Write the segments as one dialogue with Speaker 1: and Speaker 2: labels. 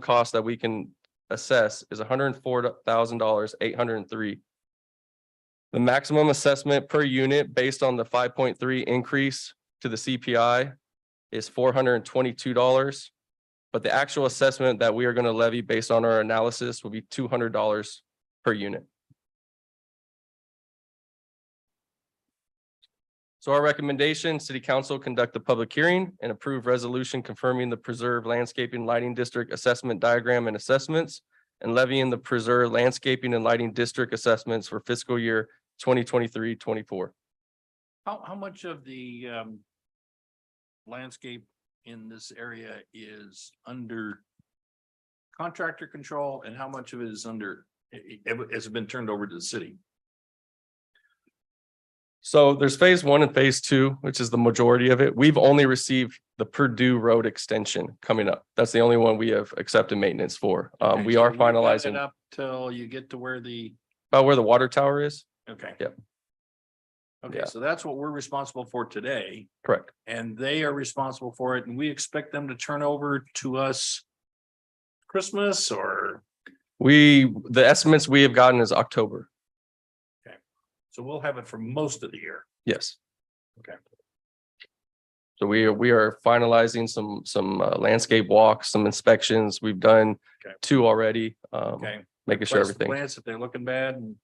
Speaker 1: cost that we can assess is hundred and four thousand dollars, eight hundred and three. The maximum assessment per unit based on the five point three increase to the CPI is four hundred and twenty-two dollars. But the actual assessment that we are going to levy based on our analysis will be two hundred dollars per unit. So our recommendation, city council conduct a public hearing and approve resolution confirming the preserve landscaping lighting district assessment diagram and assessments and levying the preserve landscaping and lighting district assessments for fiscal year 2023-24.
Speaker 2: How, how much of the um landscape in this area is under contractor control and how much of it is under, i- i- has it been turned over to the city?
Speaker 1: So there's phase one and phase two, which is the majority of it. We've only received the Purdue Road extension coming up. That's the only one we have accepted maintenance for. Um,
Speaker 2: Okay,
Speaker 1: we
Speaker 2: so
Speaker 1: are
Speaker 2: you've got it
Speaker 1: finalizing
Speaker 2: Up till you get to where the,
Speaker 1: about where the water tower is.
Speaker 2: okay.
Speaker 1: Yep.
Speaker 2: Okay,
Speaker 1: Yeah.
Speaker 2: so that's what we're responsible for today
Speaker 1: Correct.
Speaker 2: and they are responsible for it and we expect them to turn over to us Christmas or,
Speaker 1: We, the estimates we have gotten is October.
Speaker 2: so we'll have it for most of the year.
Speaker 1: Yes.
Speaker 2: Okay.
Speaker 1: So we are, we are finalizing some, some uh, landscape walks, some inspections. We've done
Speaker 2: Okay.
Speaker 1: two already. um,
Speaker 2: Okay.
Speaker 1: Making sure
Speaker 2: replace the
Speaker 1: everything.
Speaker 2: Plants if they're looking bad and.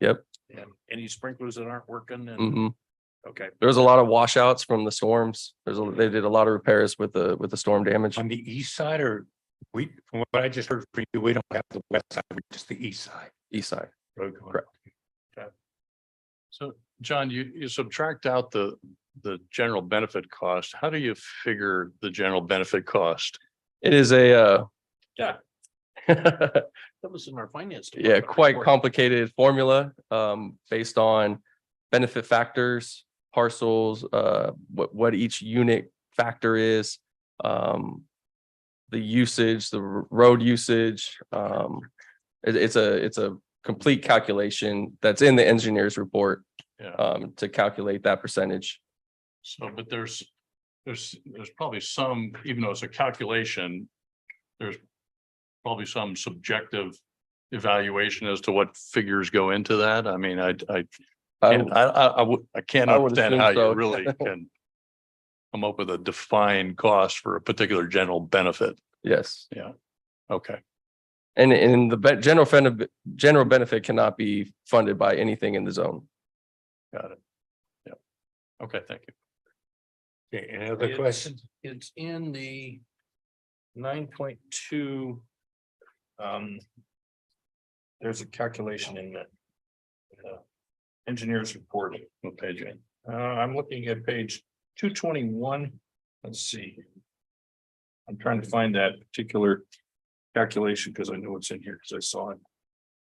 Speaker 1: Yep.
Speaker 2: And any sprinklers that aren't working and,
Speaker 1: Mhm.
Speaker 2: okay,
Speaker 1: There was a lot of washouts from the storms. There's, a- they did a lot of repairs with the, with the storm damage.
Speaker 3: On the east side or we, from what I just heard from you, we don't have the west side, we're just the east side.
Speaker 1: East side.
Speaker 3: road going.
Speaker 1: Correct.
Speaker 4: So, John, you, you subtract out the, the general benefit cost. How do you figure the general benefit cost?
Speaker 1: It is a, uh,
Speaker 2: Yeah. that was in our finance.
Speaker 1: Yeah,
Speaker 2: department
Speaker 1: quite
Speaker 2: report.
Speaker 1: complicated formula um based on benefit factors, parcels, uh what what each unit factor is. Um the usage, the r- road usage, um it- it's a, it's a complete calculation that's in the engineer's report
Speaker 4: Yeah,
Speaker 1: um to calculate that percentage.
Speaker 4: so, but there's, there's, there's probably some, even though it's a calculation, there's probably some subjective evaluation as to what figures go into that. I mean, I, I,
Speaker 1: I
Speaker 4: can't- I, I, I would, I can't
Speaker 1: I would
Speaker 4: understand
Speaker 1: assume
Speaker 4: how
Speaker 1: so.
Speaker 4: you really can come up with a defined cost for a particular general benefit.
Speaker 1: yes.
Speaker 4: Okay.
Speaker 1: And and the be- general fund, general benefit cannot be funded by anything in the zone.
Speaker 4: Got it. Yeah. Okay, thank you.
Speaker 3: Okay, any other
Speaker 2: It's-
Speaker 3: questions?
Speaker 2: It's in the nine point two. Um. There's a calculation in the. uh, Engineer's report.
Speaker 4: What page?
Speaker 2: Uh, I'm looking at page two twenty-one, let's see. I'm trying to find that particular calculation because I know it's in here because I saw it.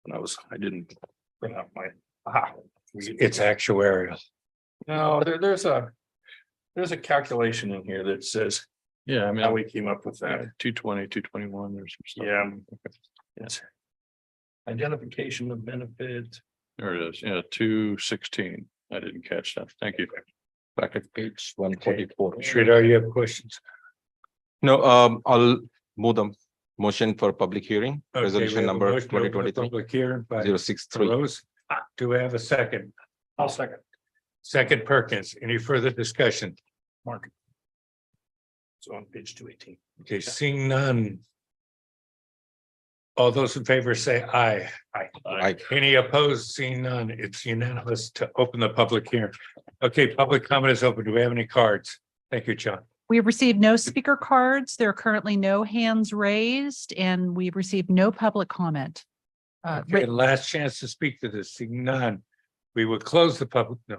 Speaker 2: When I was, I didn't print out my, ah,
Speaker 3: It's actuarial.
Speaker 2: no, there, there's a. There's a calculation in here that says
Speaker 4: Yeah, I mean.
Speaker 2: how we came up with that,
Speaker 4: Two twenty, two twenty-one, there's some stuff.
Speaker 2: yeah. Yes. Identification of benefit.
Speaker 4: There it is, yeah, two sixteen. I didn't catch that. Thank you.
Speaker 3: Back at page one forty-four. Sridhar, you have questions?
Speaker 5: No, um, I'll move the motion for public hearing,
Speaker 3: Okay, we have
Speaker 5: resolution
Speaker 3: a
Speaker 5: number
Speaker 3: motion to
Speaker 5: twenty
Speaker 3: open the
Speaker 5: twenty-three
Speaker 3: Public hearing by
Speaker 5: zero six three.
Speaker 3: Rose. Ah, Do we have a second?
Speaker 2: I'll second.
Speaker 3: Second Perkins, any further discussion?
Speaker 2: Mark. So on page two eighteen.
Speaker 3: Okay, seeing none. All those in favor say aye.
Speaker 5: Aye.
Speaker 3: Any opposed, seeing none, it's unanimous to open the public hearing. Okay, public comment is open. Do we have any cards? Thank you, John.
Speaker 6: We have received no speaker cards. There are currently no hands raised and we've received no public comment. Uh,
Speaker 3: Okay,
Speaker 6: writ-
Speaker 3: last chance to speak to this, seeing none. We will close the public, no.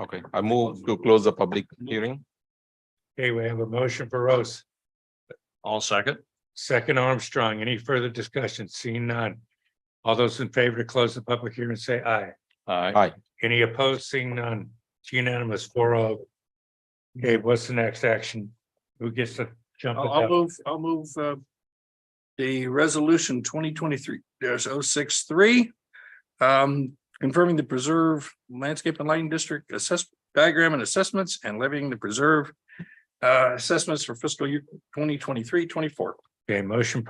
Speaker 5: Okay, I move to close the public hearing.
Speaker 3: Okay, we have a motion for Rose,
Speaker 4: All second.
Speaker 3: second Armstrong. Any further discussion? Seeing none. All those in favor to close the public hearing, say aye.
Speaker 4: Aye.
Speaker 5: Aye.
Speaker 3: Any opposed, seeing none, it's unanimous, four oh. Okay, what's the next action? Who gets to jump?
Speaker 2: I'll,
Speaker 3: at
Speaker 2: I'll
Speaker 3: that?
Speaker 2: move, I'll move, uh, the resolution twenty twenty-three, there's oh six three. Um, confirming the preserve landscape and lighting district assess, diagram and assessments and levying the preserve. Uh, assessments for fiscal year 2023-24.
Speaker 3: Okay, motion